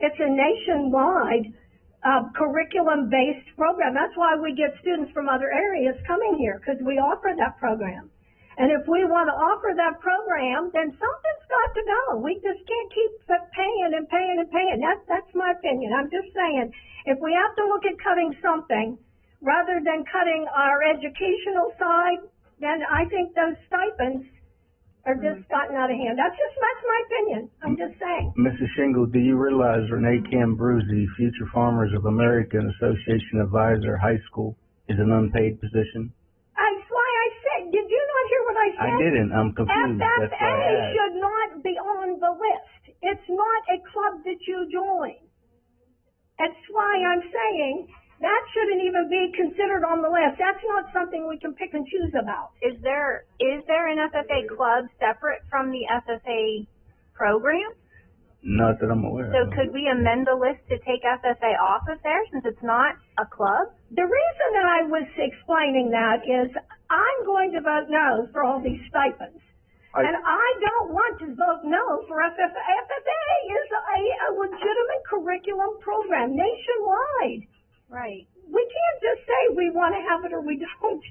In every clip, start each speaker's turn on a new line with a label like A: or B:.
A: it's a nationwide, uh, curriculum-based program. That's why we get students from other areas coming here, because we offer that program. And if we want to offer that program, then something's got to go. We just can't keep p- paying and paying and paying. That's, that's my opinion. I'm just saying, if we have to look at cutting something, rather than cutting our educational side, then I think those stipends are just gotten out of hand. That's just, that's my opinion. I'm just saying.
B: Mrs. Shingle, do you realize Renee Cambruzzi, Future Farmers of America and Association Advisor High School, is an unpaid position?
A: That's why I said, did you not hear what I
B: I
A: said?
B: didn't, I'm confused, that's
A: FFA
B: why I asked.
A: should not be on the list. It's not a club that you join. That's why I'm saying that shouldn't even be considered on the list. That's not something we can pick and choose about.
C: Is there, is there an FFA club separate from the FFA program?
B: Not that I'm aware
C: So
B: of.
D: Uh-huh.
C: could we amend the list to take FFA off of there since it's not a club?
A: The reason that I was explaining that is I'm going to vote no for all these stipends.
B: I-
A: And I don't want to vote no for FFA. FFA is a, a legitimate curriculum program nationwide.
C: Right.
A: we can't just say we want to have it or we don't.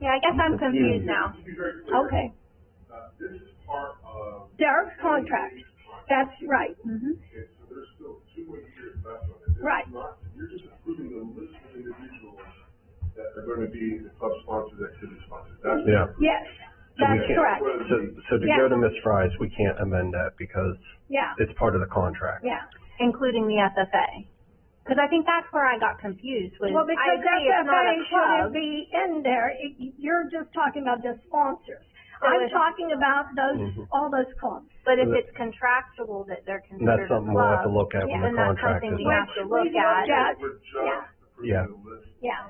C: Yeah, I guess I'm
B: Confused.
C: confused now.
A: Okay.
E: uh, This is part of,
A: Derek's contract. That's right.
E: okay, so there's still two more years left on it. This is
A: Right.
E: not- You're just approving the list of individuals that are gonna be the club sponsors, activity sponsors. That's-
D: Yeah.
A: Yes, that's
D: can't-
A: correct.
D: So, so to
A: Yeah.
D: go to Ms. Fry's, we can't amend that because
A: Yeah,
D: it's part of the contract.
A: yeah.
C: Including the FFA. Cause I think that's where I got confused with,
A: Well,
C: I
A: because
C: agree it's not a
A: FFA
C: club.
A: shouldn't be in there. It- You're just talking about the sponsors.
C: So
A: I'm
C: it's-
A: talking about
D: Mm-hmm.
A: those, all those clubs.
C: But if it's contractual that they're
D: And that's
C: considered a
D: something we'll have to
C: club,
D: look at when
C: then
D: the
C: that's
D: contract
C: something
D: is.
C: we have to look
A: We've
C: at.
A: looked at,
E: We're just
A: yeah,
D: Yeah.
E: approving the list.
A: yeah.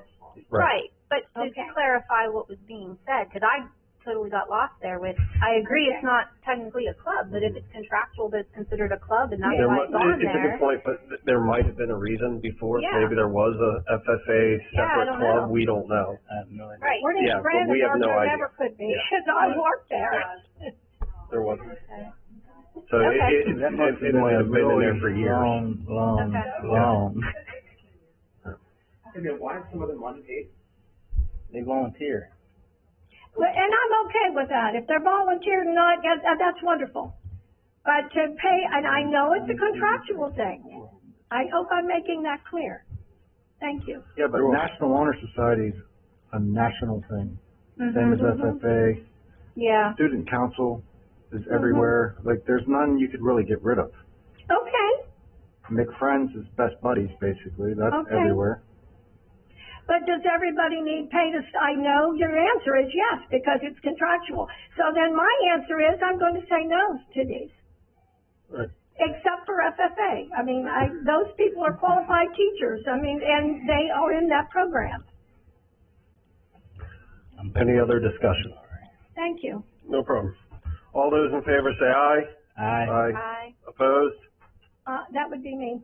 C: Right, but to
A: Okay.
C: clarify what was being said, cause I totally got lost there with, I agree it's not technically a club, but if it's contractual that it's considered a club and that's
D: There
C: why
D: might,
C: it's on
D: it- it's a
C: there.
D: good point, but th- there might have been a reason before,
C: Yeah.
D: maybe there was a FFA
C: Yeah, I
D: separate
C: don't know.
D: club, we don't know.
B: I have no idea.
C: Right,
A: We're
D: Yeah,
A: in
D: but we have
A: Brandenburg,
D: no
A: there
D: idea.
A: never could be,
D: Yeah.
A: because I worked there.
D: There wasn't. So it,
C: Okay.
D: it, it,
B: That must have
D: it
B: been
D: might
B: a
D: have been in there for
B: really
D: years.
B: long, long,
C: Okay.
B: long,
F: And then why is some of them unpaid?
B: they volunteer.
A: Well, and I'm okay with that. If they're volunteer or not, that, that- that's wonderful. But to pay, and I know it's a contractual thing. I hope I'm making that clear. Thank you.
G: Yeah, but National Honor Society's a national thing, same
A: Mm-hmm.
G: as
C: Mm-hmm.
G: FFA,
C: Yeah.
G: student council is everywhere, like, there's none you could really get rid of.
A: Okay,
G: Make friends is best buddies, basically, that's
A: Okay.
G: everywhere.
A: but does everybody need pay to, s- I know your answer is yes, because it's contractual. So then my answer is I'm going to say no to these.
D: Right.
A: Except for FFA. I mean, I, those people are qualified teachers. I mean, and they are in that program.
D: Any other discussion?
A: Thank you.
D: No problem. All those in favor say aye.
B: I,
D: Aye. Opposed?
A: Uh, that would be me.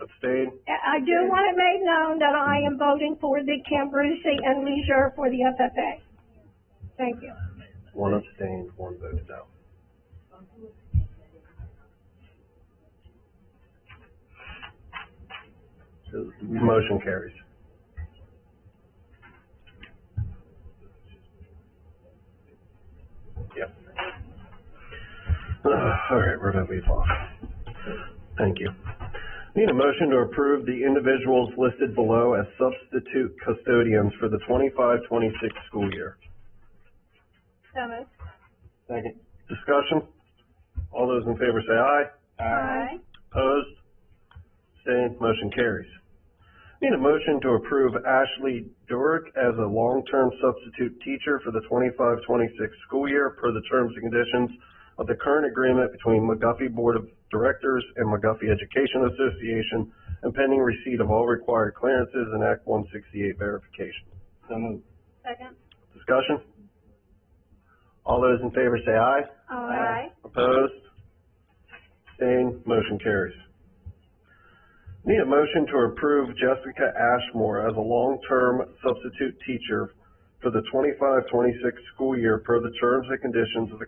D: Abstained?
A: I I do want it made known that I am voting for the Cambrusi and Leisure for the FFA. Thank you.
D: One abstained, one voted no. So, Motion carries. Yep. Uh, All right, where did we leave off? Thank you. Need a motion to approve the individuals listed below as substitute custodians for the 25-26 school year.
C: So moved.
D: Second. Discussion? All those in favor say aye.
C: Aye.
D: Opposed? Abstained? Motion carries. Need a motion to approve Ashley Durick as a long-term substitute teacher for the 25-26 school year per the terms and conditions of the current agreement between McGuffey Board of Directors and McGuffey Education Association and pending receipt of all required clearances and Act one sixty-eight verification.
B: so moved.
C: Second.
D: Discussion? All those in favor say aye.
C: Aye.
D: Opposed? Abstained? Motion carries. Need a motion to approve Jessica Ashmore as a long-term substitute teacher for the 25-26 school year per the terms and conditions of the